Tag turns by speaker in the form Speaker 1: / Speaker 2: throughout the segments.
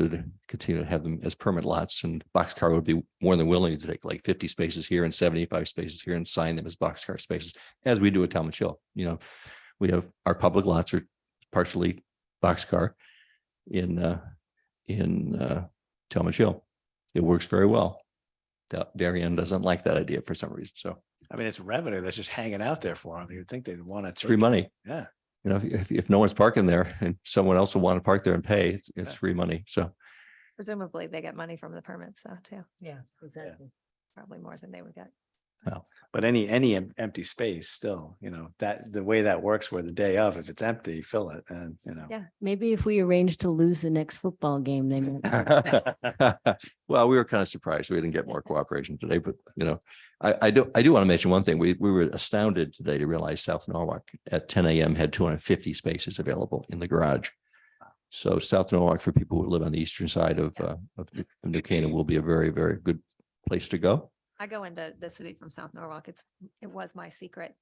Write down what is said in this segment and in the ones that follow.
Speaker 1: to continue to have them as permanent lots and boxcar would be more than willing to take like fifty spaces here and seventy-five spaces here and sign them as boxcar spaces, as we do at Talmud Hill, you know. We have, our public lots are partially boxcar in, uh, in, uh, Talmud Hill. It works very well. Da- Darien E doesn't like that idea for some reason, so
Speaker 2: I mean, it's revenue that's just hanging out there for them. You'd think they'd want to.
Speaker 1: it's free money.
Speaker 2: Yeah.
Speaker 1: You know, if- if, if no one's parking there and someone else will want to park there and pay, it's, it's free money, so.
Speaker 3: Presumably they get money from the permits though too,
Speaker 4: Yeah, exactly.
Speaker 3: probably more than they would get.
Speaker 2: But any, any em- empty space still, you know, that, the way that works where the day of, if it's empty, fill it and, you know.
Speaker 3: Yeah.
Speaker 4: Maybe if we arrange to lose the next football game, they might.
Speaker 1: Well, we were kind of surprised. We didn't get more cooperation today, but you know, I, I do, I do want to mention one thing. We, we were astounded today to realize South Norwalk at ten AM had two hundred and fifty spaces available in the garage. So South Norwalk, for people who live on the eastern side of, uh, of New- of New Canaan, will be a very, very good place to go.
Speaker 3: I go into the city from South Norwalk. It's, it was my secret.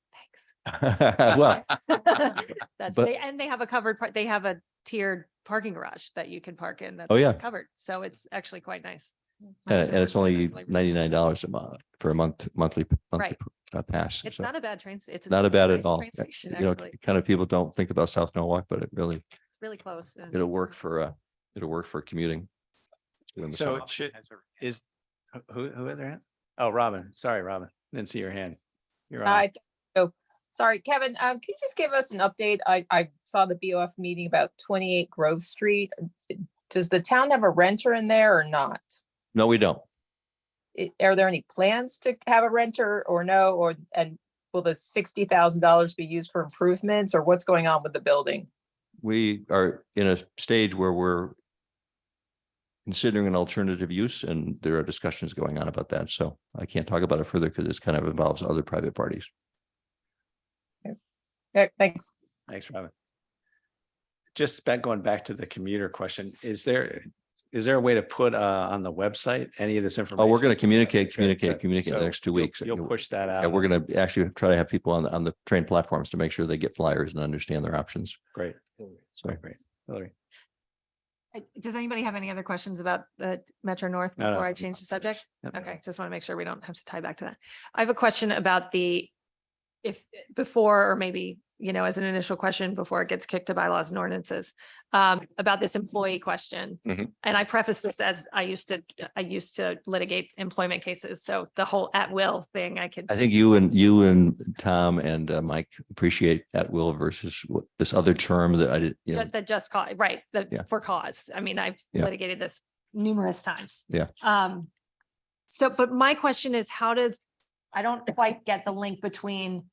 Speaker 3: Thanks.
Speaker 1: Well,
Speaker 3: That
Speaker 1: But-
Speaker 3: they, and they have a covered part, they have a tiered parking garage that you can park in.
Speaker 1: Oh,
Speaker 3: that's
Speaker 1: yeah.
Speaker 3: Covered. So it's actually quite nice. My
Speaker 1: and, and it's
Speaker 3: favorite
Speaker 1: only
Speaker 3: is like-
Speaker 1: ninety-nine dollars a month for a month, monthly, monthly
Speaker 3: Right.
Speaker 1: uh, pass.
Speaker 3: It's
Speaker 1: So
Speaker 3: not a bad train. s- It's. a
Speaker 1: Not a bad
Speaker 3: nice
Speaker 1: at all. Uh,
Speaker 3: train station,
Speaker 1: You know,
Speaker 3: actually. It's
Speaker 1: kind of people don't think about South Norwalk, but it really
Speaker 3: really close. and-
Speaker 1: It'll work for, uh, it'll work for commuting. during the
Speaker 2: So
Speaker 1: summer.
Speaker 2: it should, is, who- who, who had their hand? Oh, Robin. Sorry, Robin. Didn't see your hand. You're on.
Speaker 5: I, oh, sorry, Kevin, um, could you just give us an update? I, I saw the BOF meeting about twenty-eight Grove Street. Does the town have a renter in there or not?
Speaker 1: No, we don't.
Speaker 5: I- Are there any plans to have a renter or no, or, and will the sixty thousand dollars be used for improvements or what's going on with the building?
Speaker 1: We are in a stage where we're considering an alternative use and there are discussions going on about that. So I can't talk about it further because this kind of involves other private parties.
Speaker 5: Yeah, Thanks.
Speaker 2: Thanks, Robin. Just back, going back to the commuter question, is there, is there a way to put uh on the website any of this
Speaker 1: Oh,
Speaker 2: information?
Speaker 1: we're going to communicate,
Speaker 2: Okay,
Speaker 1: communicate,
Speaker 2: good.
Speaker 1: communicate in
Speaker 2: So
Speaker 1: the next two
Speaker 2: you'll-
Speaker 1: weeks.
Speaker 2: You'll push that out.
Speaker 1: Yeah, we're going to actually try to have people on, the- on the train platforms to make sure they get flyers and understand their options.
Speaker 2: Great.
Speaker 1: So-
Speaker 2: Great, great. Hillary.
Speaker 3: Uh, Does anybody have any other questions about the Metro North
Speaker 2: No, no.
Speaker 3: before I change the subject?
Speaker 2: Yep.
Speaker 3: Okay, just want to make sure we don't have to tie back to that. I have a question about the, if, before, or maybe, you know, as an initial question, before it gets kicked to bylaws and ordinances, um, about this employee question.
Speaker 1: Mhm.
Speaker 3: And I preface this as I used to, I used to litigate employment cases, so the whole at-will thing I could.
Speaker 1: I think you and you and Tom and uh, Mike appreciate at will versus what- this other term that I did. you know,
Speaker 3: Ju- The just cause, right,
Speaker 1: Yeah.
Speaker 3: the for cause. I mean, I've
Speaker 1: Yeah.
Speaker 3: litigated this numerous times.
Speaker 1: Yeah.
Speaker 3: Um, so, but my question is, how does, I don't quite get the link between,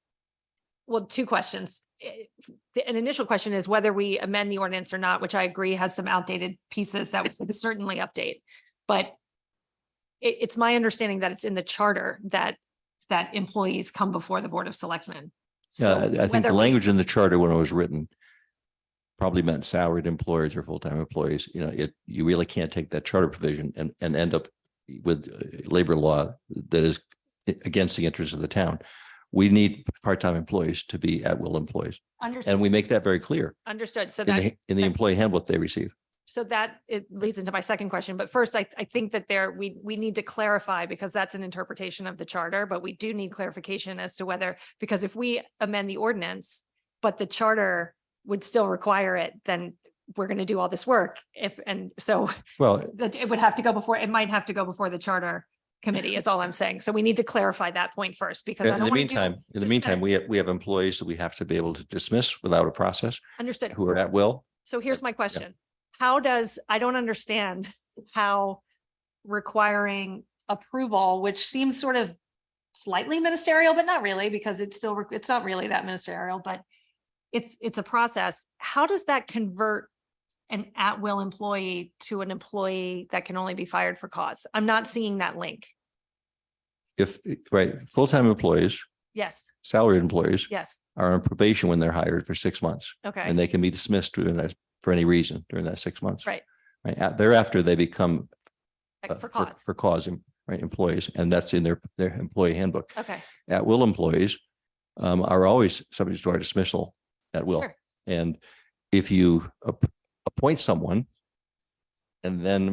Speaker 3: well, two questions. Eh, the- An initial question is whether we amend the ordinance or not, which I agree has some outdated pieces that we could certainly update. But it, it's my understanding that it's in the charter that, that employees come before the Board of Selectmen.
Speaker 1: Yeah,
Speaker 3: So
Speaker 1: I I think
Speaker 3: whether
Speaker 1: the
Speaker 3: we-
Speaker 1: language in the charter when it was written probably meant salaried employers or full-time employees. You know, it, you really can't take that charter provision and, and end up with uh, labor law that is a- against the interests of the town. We need part-time employees to be at-will employees, and
Speaker 3: Understood,
Speaker 1: we make that very clear
Speaker 3: understood. So
Speaker 1: in
Speaker 3: that.
Speaker 1: the, in the
Speaker 3: that-
Speaker 1: employee handbook they receive.
Speaker 3: So that it leads into my second question, but first I, I think that there, we, we need to clarify because that's an interpretation of the charter, but we do need clarification as to whether, because if we amend the ordinance, but the charter would still require it, then we're going to do all this work if, and so
Speaker 1: Well,
Speaker 3: that it would have to go before, it might have to go before the charter committee is all I'm saying. So we need to clarify that point first because I
Speaker 1: in
Speaker 3: don't
Speaker 1: the
Speaker 3: want to do.
Speaker 1: meantime, in the
Speaker 3: just
Speaker 1: meantime,
Speaker 3: that-
Speaker 1: we have, we have employees that we have to be able to dismiss without a process
Speaker 3: Understood.
Speaker 1: who are at will.
Speaker 3: So here's my question. How does, I don't understand how requiring approval, which seems sort of slightly ministerial, but not really, because it's still, re- it's not really that ministerial, but it's, it's a process. How does that convert an at-will employee to an employee that can only be fired for cause? I'm not seeing that link.
Speaker 1: If, right, full-time employees,
Speaker 3: Yes,
Speaker 1: salaried employees
Speaker 3: yes,
Speaker 1: are on probation when they're hired for six months
Speaker 3: okay,
Speaker 1: and they can be dismissed during that, for any reason during that six months.
Speaker 3: Right.
Speaker 1: Right. a- Thereafter, they become. uh,
Speaker 3: like for cause,
Speaker 1: For cause, em- right, employees, and that's in their, their employee handbook.
Speaker 3: okay.
Speaker 1: At will employees um, are always subject to our dismissal at will.
Speaker 3: Sure.
Speaker 1: And if you ap- appoint someone And then